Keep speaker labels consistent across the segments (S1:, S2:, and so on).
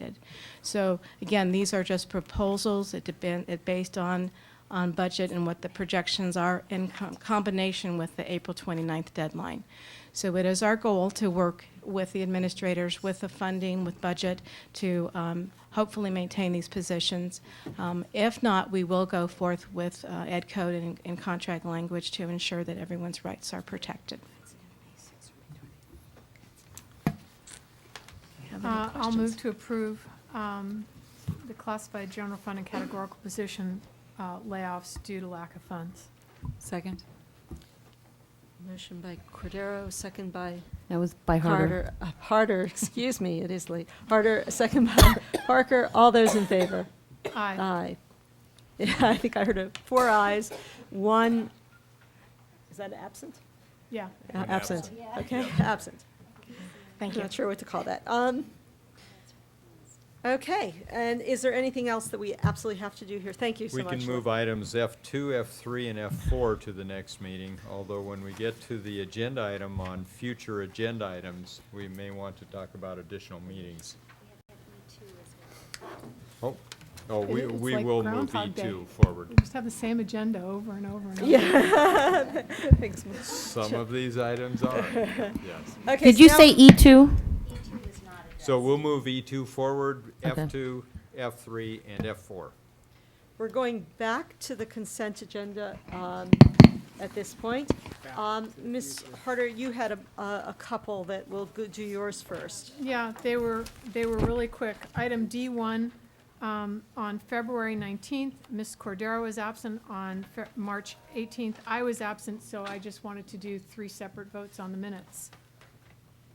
S1: needed. So again, these are just proposals. It depend, it based on, on budget and what the projections are in com- combination with the April 29th deadline. So it is our goal to work with the administrators, with the funding, with budget, to um, hopefully maintain these positions. Um, If not, we will go forth with uh, ed code and, and contract language to ensure that everyone's rights are protected. Have any
S2: Uh, I'll
S1: questions?
S2: move to approve um, the classified general fund and categorical position uh, layoffs due to lack of funds.
S3: Second.
S4: Motion by Cordero, second by
S3: That was by Harder.
S4: Carter. uh, Harder, excuse me, it is late. Harder, second by Parker. All those in favor?
S2: Aye.
S4: Aye. Yeah, I think I heard a, four ayes, one, is that absent?
S2: Yeah.
S4: Uh, Absent, okay, absent.
S1: Thank you.
S4: Not sure what to call that. Um, Okay, and is there anything else that we absolutely have to do here? Thank you so
S5: We
S4: much.
S5: can
S4: Lynn.
S5: move items F2, F3, and F4 to the next meeting, although when we get to the agenda item on future agenda items, we may want to talk about additional meetings. Oh, oh, we,
S2: It- it's
S5: we
S2: like
S5: will move
S2: Groundhog Day.
S5: E2 forward.
S2: We just have the same agenda over and over and over.
S4: Yeah. Thanks.
S5: Some of these items are, yes.
S4: Okay,
S6: Did
S4: so
S6: you
S4: now-
S6: say E E2?
S5: So we'll move E2 forward,
S6: Okay.
S5: F2, F3, and F4.
S4: We're going back to the consent agenda um, at this point. Um, Ms. Harder, you had a- a a couple that will go- do yours first.
S2: Yeah, they were, they were really quick. Item D1, um, on February 19th, Ms. Cordero was absent. On Fe- March 18th, I was absent, so I just wanted to do three separate votes on the minutes.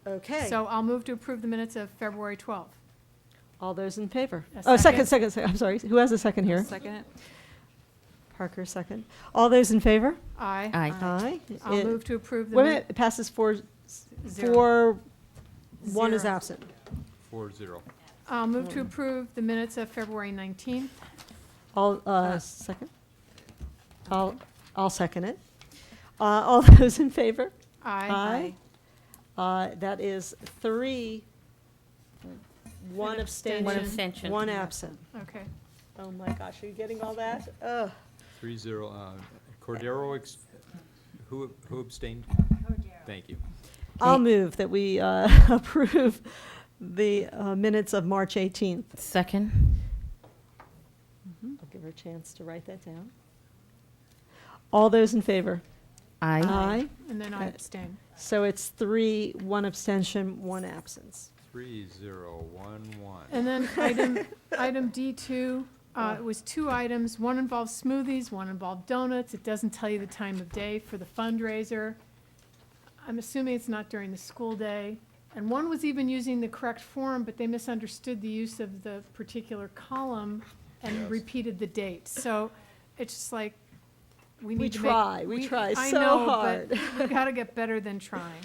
S4: Okay.
S2: So I'll move to approve the minutes of February 12th.
S4: All those in favor?
S2: A
S4: Oh, second,
S2: second.
S4: second, second. I'm sorry. Who has a second here?
S3: Second.
S4: Parker, second. All those in favor?
S2: Aye.
S6: Aye.
S3: Uh,
S4: Aye.
S2: I'll
S4: It-
S2: move to approve the.
S4: Wait a
S2: min-
S4: minute, it passes four,
S2: Zero.
S4: four, one is
S2: Zero.
S4: absent.
S5: Four, zero.
S2: I'll move to approve the minutes of February 19th.
S4: All, uh, second? I'll, I'll second it. Uh, All those in favor?
S2: Aye.
S4: Uh, That is three, one
S2: An
S4: abstention.
S2: One
S6: abstention.
S4: One absent.
S2: Okay.
S4: Oh my gosh, are you getting all that? Ugh.
S5: Three, zero. uh, Cordero, ex- who who abstained? Thank you.
S4: I'll
S6: Okay.
S4: move that we uh, approve the uh, minutes of March 18th.
S6: Second?
S4: I'll give her a chance to write that down. All those in favor?
S3: um,
S6: Aye.
S4: Aye.
S2: And then I
S4: Uh,
S2: abstain.
S4: So it's three, one abstention, one absence.
S5: Three, zero, one, one.
S2: And then item, item D2, uh, it was two items. One involved smoothies, one involved donuts. It doesn't tell you the time of day for the fundraiser. I'm assuming it's not during the school day. And one was even using the correct form, but they misunderstood the use of the particular column and
S5: Yes.
S2: repeated the date. So it's just like, we
S4: We
S2: need to make-
S4: try, we try
S2: I
S4: so
S2: know,
S4: hard.
S2: but we gotta get better than trying.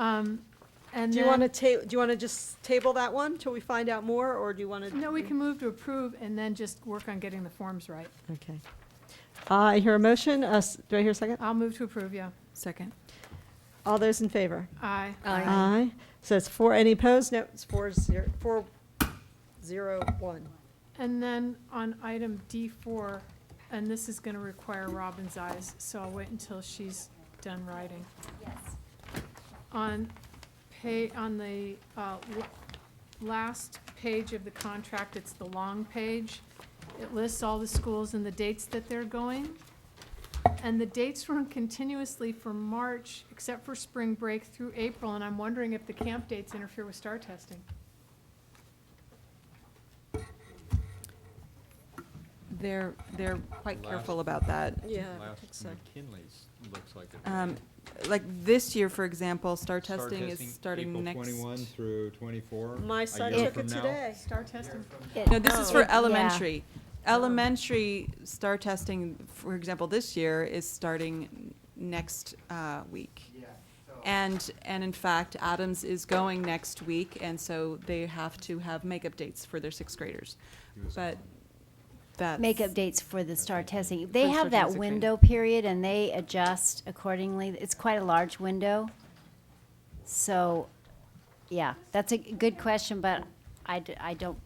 S2: Um, and
S4: Do you
S2: then-
S4: want to ta, do you want to just table that one till we find out more, or do you want to?
S2: No, we can move to approve and then just work on getting the forms right.
S4: Okay. I hear a motion. Uh, s- Do I hear a second?
S2: I'll move to approve, yeah.
S3: Second.
S4: All those in favor?
S2: Aye.
S4: Aye. So it's four, any opposed? No, it's four, zero, four, zero, one.
S2: And then on item D4, and this is gonna require Robin's eyes, so I'll wait until she's done writing. On pay, on the, uh, l- last page of the contract, it's the long page. It lists all the schools and the dates that they're going. And the dates run continuously from March, except for spring break through April, and I'm wondering if the camp dates interfere with star testing.
S3: They're, they're quite
S5: Last-
S3: careful about that.
S4: Yeah, I
S5: Last
S4: think so.
S5: McKinley's looks like it.
S3: Um, Like this year, for example, star
S5: Start
S3: testing is starting next.
S5: April 21 through 24.
S4: My
S5: a
S4: son
S5: year
S4: took
S5: from
S4: it
S5: now.
S4: today.
S2: Star testing?
S3: No, this is for
S6: Yeah.
S3: elementary. Elementary star testing, for example, this year is starting next uh, week. And, and in fact, Adams is going next week, and so they have to have makeup dates for their sixth graders.
S5: He was
S3: But that's.
S7: Oh, Makeup dates for the star testing. They
S3: For
S7: have
S3: star
S7: that
S3: testing, okay.
S7: window period and they adjust accordingly. It's quite a large window. So, yeah, that's a good question, but I, d- I don't